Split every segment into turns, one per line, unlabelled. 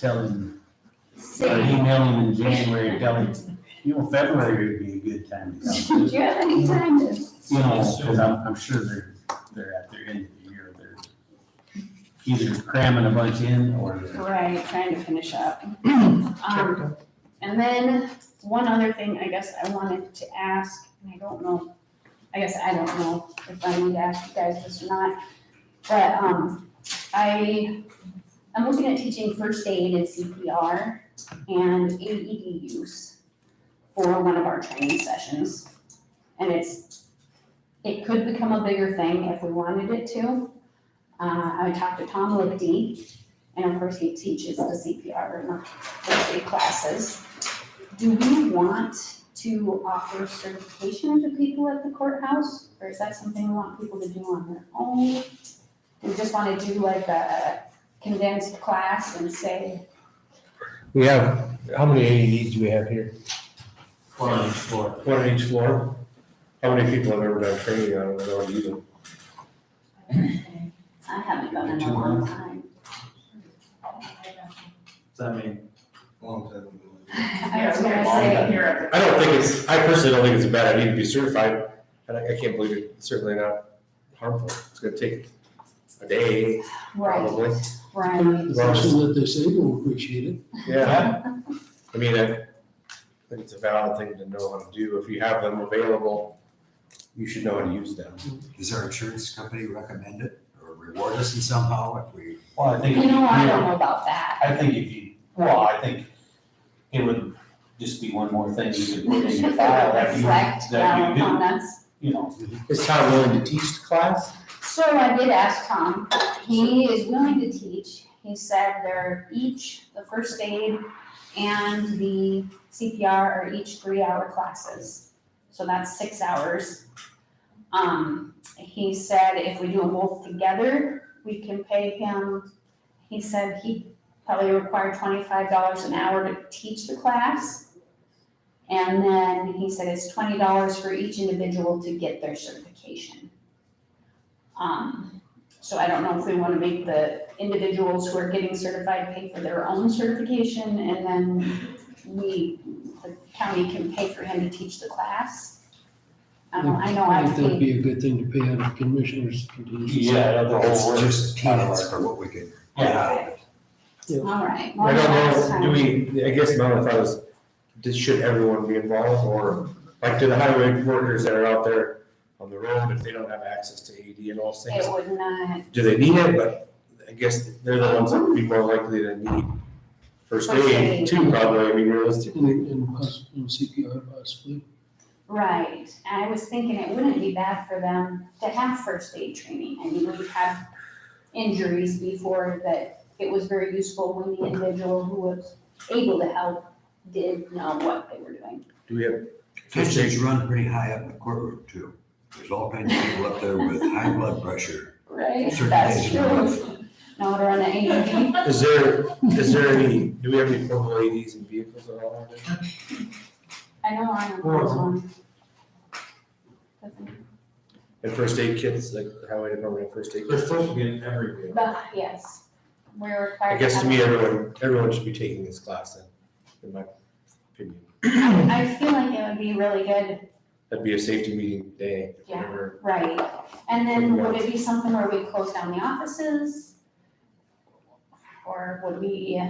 tell him, or
Say,
email him in January, tell him, you know, February would be a good time to come.
do you have any time to,
You know, because I'm, I'm sure they're, they're at their end of the year, they're either cramming a bunch in or they're
right, trying to finish up? Um, and then one other thing I guess I wanted to ask, and I don't know, I guess I don't know if I need to ask you guys this or not, but, um, I, I'm looking at teaching first aid and CPR and AED use for one of our training sessions. And it's, it could become a bigger thing if we wanted it to. Uh, I talked to Tom Lipke, and of course he teaches the CPR and the first aid classes. Do we want to offer certification to people at the courthouse, or is that something we want people to do on their own? We just wanna do like a condensed class and say,
We have, how many AEDs do we have here?
on the floor.
One on each floor. How many people have ever done training on E it without using?
I haven't done it in a long time.
So I mean,
Long time ago.
I
Yeah,
was
we
gonna
have
say,
here at the
I don't think it's, I personally don't think it's a bad idea to be certified, and I, I can't believe it's certainly not harmful. It's gonna take a day,
right,
probably.
right.
The person that they say will appreciate it.
Yeah. I mean, I think it's a valid thing to know how to do. If you have them available, you should know how to use them.
Does our insurance company recommend it or reward us in somehow if we?
well, I think.
You know, I don't know about that.
I think if you, well, I think it would just be one more thing you could put in your file that you,
Reflect
that
um,
you
on
do,
us.
you know.
Is Tom willing to teach the class?
So I did ask Tom, he is willing to teach, he said they're each, the first aid and the CPR are each three hour classes. So that's six hours. Um, he said if we do them both together, we can pay him, he said he probably required twenty-five dollars an hour to teach the class. And then he said it's twenty dollars for each individual to get their certification. Um, so I don't know if we wanna make the individuals who are getting certified pay for their own certification and then we, the county can pay for him to teach the class. I don't know, I know
I
I've
think
paid,
that'd be a good thing to pay out of commissioners' contingency.
the
It's just peanuts for what we could. get out of it.
all right.
I
well,
don't
last
know,
time-
do we, I guess my only thought is, does, should everyone be involved, or, like, do the highway workers that are out there on the road, if they don't have access to AD and all those things,
It would not,
do they need it, but I guess they're the ones that would be more likely to need first
First aid.
aid too, probably, I mean, realistically.
And, and poss- and CPR possibly.
right, and I was thinking it wouldn't be bad for them to have first aid training, I mean, we've had injuries before that it was very useful when the individual who was able to help did know what they were doing.
Do we have,
Fish eggs run pretty high up in the courtroom too. There's all kinds of people up there with high blood pressure.
Right,
Certain
that's
days.
true. Now we're on the AED.
is there, is there any, do we have any portable ADs and vehicles at all?
I know I am one.
And first aid kits, like, the highway department had first aid
They're
kits?
supposed to be in every vehicle.
But, yes, we're required.
I guess to
have-
me, everyone, everyone should be taking this class then, in my opinion.
I I feel like it would be really good,
That'd be a safety meeting day,
Yeah.
whatever.
right? And then would it be something where we close down the offices? Or would we,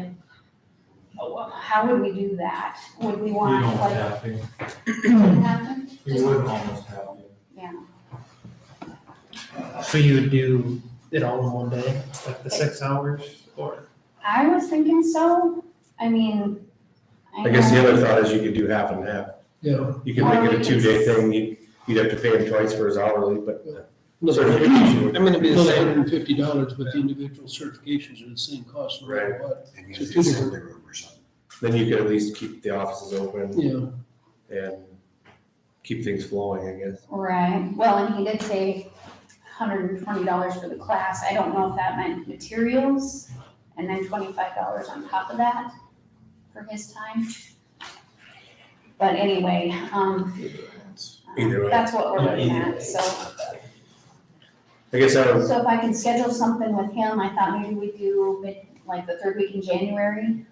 oh, how would we do that? Would we want like?
to.
Wouldn't happen?
We would almost have to.
So you would do it all in one day, like the six hours or?
I was thinking so, I mean, I
I guess the
know-
other thought is you could do half and half.
Yeah.
You could
Or
make
we
it a
could
two-day
s-
thing, you'd, you'd have to pay him twice for his hourly, but.
Another
gonna
hundred and fifty dollars, but the individual certifications are the same cost no matter what.
And you have to send the room or something.
Then you could at least keep the offices open
Yeah,
and keep things flowing, I guess.
Right, well, and he did say hundred and twenty dollars for the class, I don't know if that meant materials, and then twenty-five dollars on top of that for his time. But anyway, um,
Either way.
that's what we're looking at, so,
I guess I would,
so if I can schedule something with him, I thought maybe we do mid, like the third week in January,